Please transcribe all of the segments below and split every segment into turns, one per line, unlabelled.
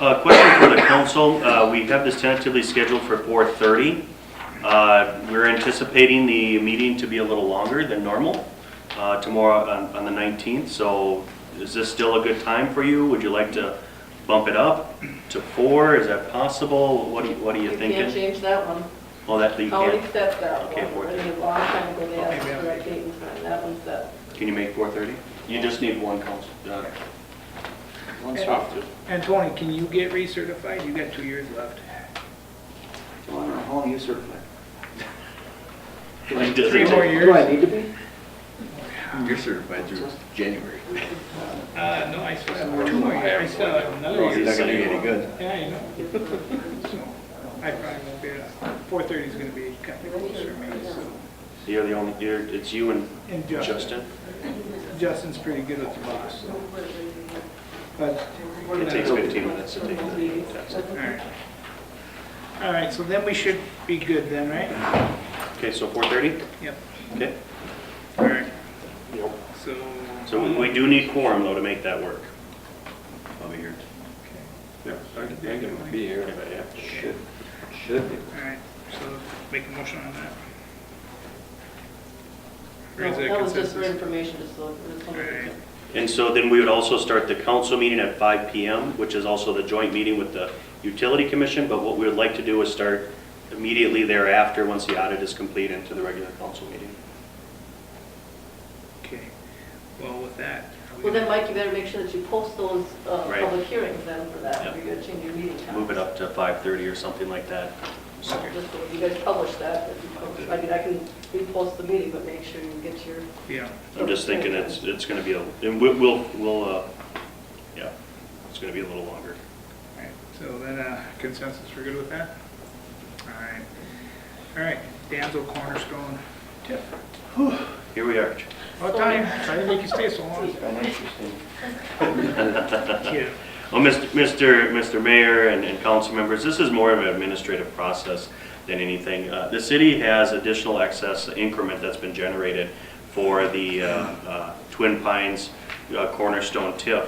A question for the council. Uh, We have this tentatively scheduled for 4:30. Uh, We're anticipating the meeting to be a little longer than normal uh, tomorrow on- on the 19th. So is this still a good time for you? Would you like to bump it up to 4? Is that possible? What do you- what are you
You can't
thinking?
change that one.
Oh, that you
I'll
can't.
accept that
Okay,
one.
four.
Already a long time ago, they asked for a date and time. That one's set.
Can you make 4:30? You just need one council. uh, One staff to.
And Tony, can you get recertified? You got two years left.
Well, I don't know, How long are you certified?
Like
Three more
Disney.
years?
Do I need to be?
You're certified through January.
Uh, no, I still have two more years. I still have another
You're
year.
not gonna do any good.
Yeah, I know. So, I probably won't be, uh, four thirty is gonna be kind of closer to me, so.
You're the only, you're- it's you and
And Justin,
Justin.
Justin's pretty good with the box, so. But.
It takes 15 minutes to take the test.
All right. All right, so then we should be good then, right?
Okay, so 4:30?
Yep.
Okay.
All right,
Yep.
so.
So we- we do need quorum, though, to make that work.
I'll be here.
Yeah.
Be here.
Should, should be.
All right, so make a motion on that. Or
No,
is it
That was just for
consensus?
information, just so. just so-
Right.
And so then we would also start the council meeting at 5 PM, which is also the joint meeting with the utility commission, but what we would like to do is start immediately thereafter, once the audit is complete, into the regular council meeting.
Okay, well, with that. are we
Well, then,
gonna-
Mike, you better make sure that you post those uh,
Right.
public hearings then for that.
Yep.
You're gonna change your meeting time.
Move it up to 5:30 or something like that.
Just so You guys publish that. that you post. I mean, I can repost the meeting, but make sure you get your.
Yeah,
I'm just thinking it's, it's going to be, a and we- we'll, we'll, uh, yeah, it's going to be a little longer.
all right, so then uh, consensus, we're good with that? All right, all right, Danzel Cornerstone. Tip.
Here we are.
Well, Tony, I didn't make you stay so long.
An interesting.
Yeah.
Well, Mr. Mr. Mr. Mayor and, and council members, this is more of an administrative process than anything. Uh, The city has additional excess increment that's been generated for the uh, uh, Twin Pines uh, Cornerstone TIF.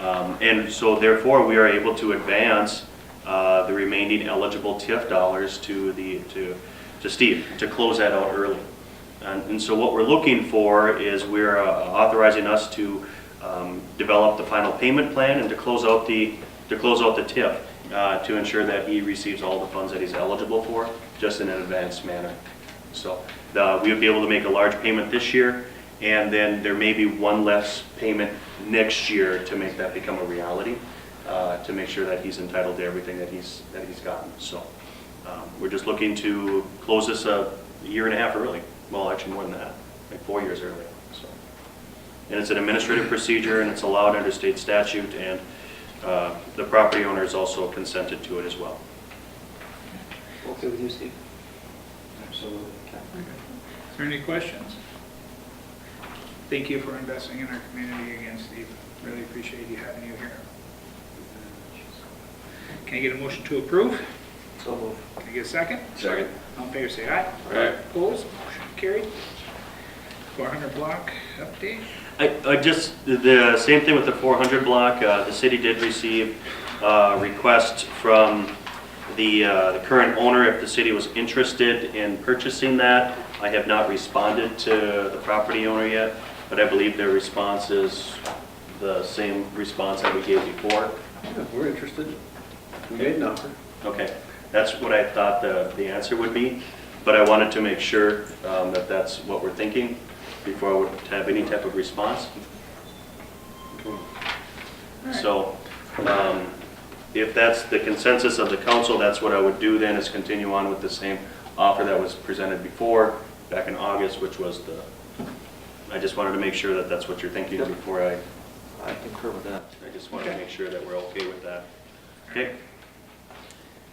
Um, And so therefore, we are able to advance uh, the remaining eligible TIF dollars to the, to, to Steve, to close that out early. And and so what we're looking for is we're uh, authorizing us to um, develop the final payment plan and to close out the, to close out the TIF, uh, to ensure that he receives all the funds that he's eligible for, just in an advanced manner. So uh, we would be able to make a large payment this year, and then there may be one less payment next year to make that become a reality, uh, to make sure that he's entitled to everything that he's, that he's gotten. So um, We're just looking to close this a year and a half early, well, actually more than that, like four years early, so. And it's an administrative procedure, and it's allowed under state statute, and uh, the property owner is also consented to it as well.
Okay with you, Steve? Absolutely.
Is there any questions? Thank you for investing in our community again, Steve. Really appreciate you having you here. Can I get a motion to approve?
So moved.
Can I get a second?
Second.
All in favor, say aye.
Aye.
Opposed, motion carried. 400 block update.
I, I just, the- the same thing with the 400 block, uh, the city did receive uh requests from the, uh, the current owner if the city was interested in purchasing that. I have not responded to the property owner yet, but I believe their response is the same response that we gave before.
Yeah, we're interested. We made an offer.
Okay, that's what I thought the, the answer would be, but I wanted to make sure um, that that's what we're thinking before I would have any type of response. So, um, if that's the consensus of the council, that's what I would do then, is continue on with the same offer that was presented before, back in August, which was the, I just wanted to make sure that that's what you're thinking before I,
I concur with that.
I just wanted to
Okay.
make sure that we're okay with that. Okay?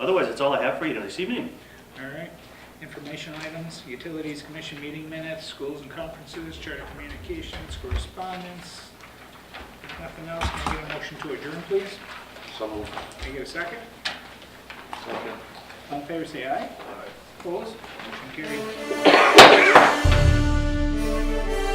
Otherwise, that's all I have for you this evening.
All right. Information items, utilities commission meeting minutes, schools and conferences, charter communications, correspondence. If Nothing else. Can I get a motion to adjourn, please?
So moved.
Can I get a second?
Second.
All in favor, say aye. Opposed? Motion carried.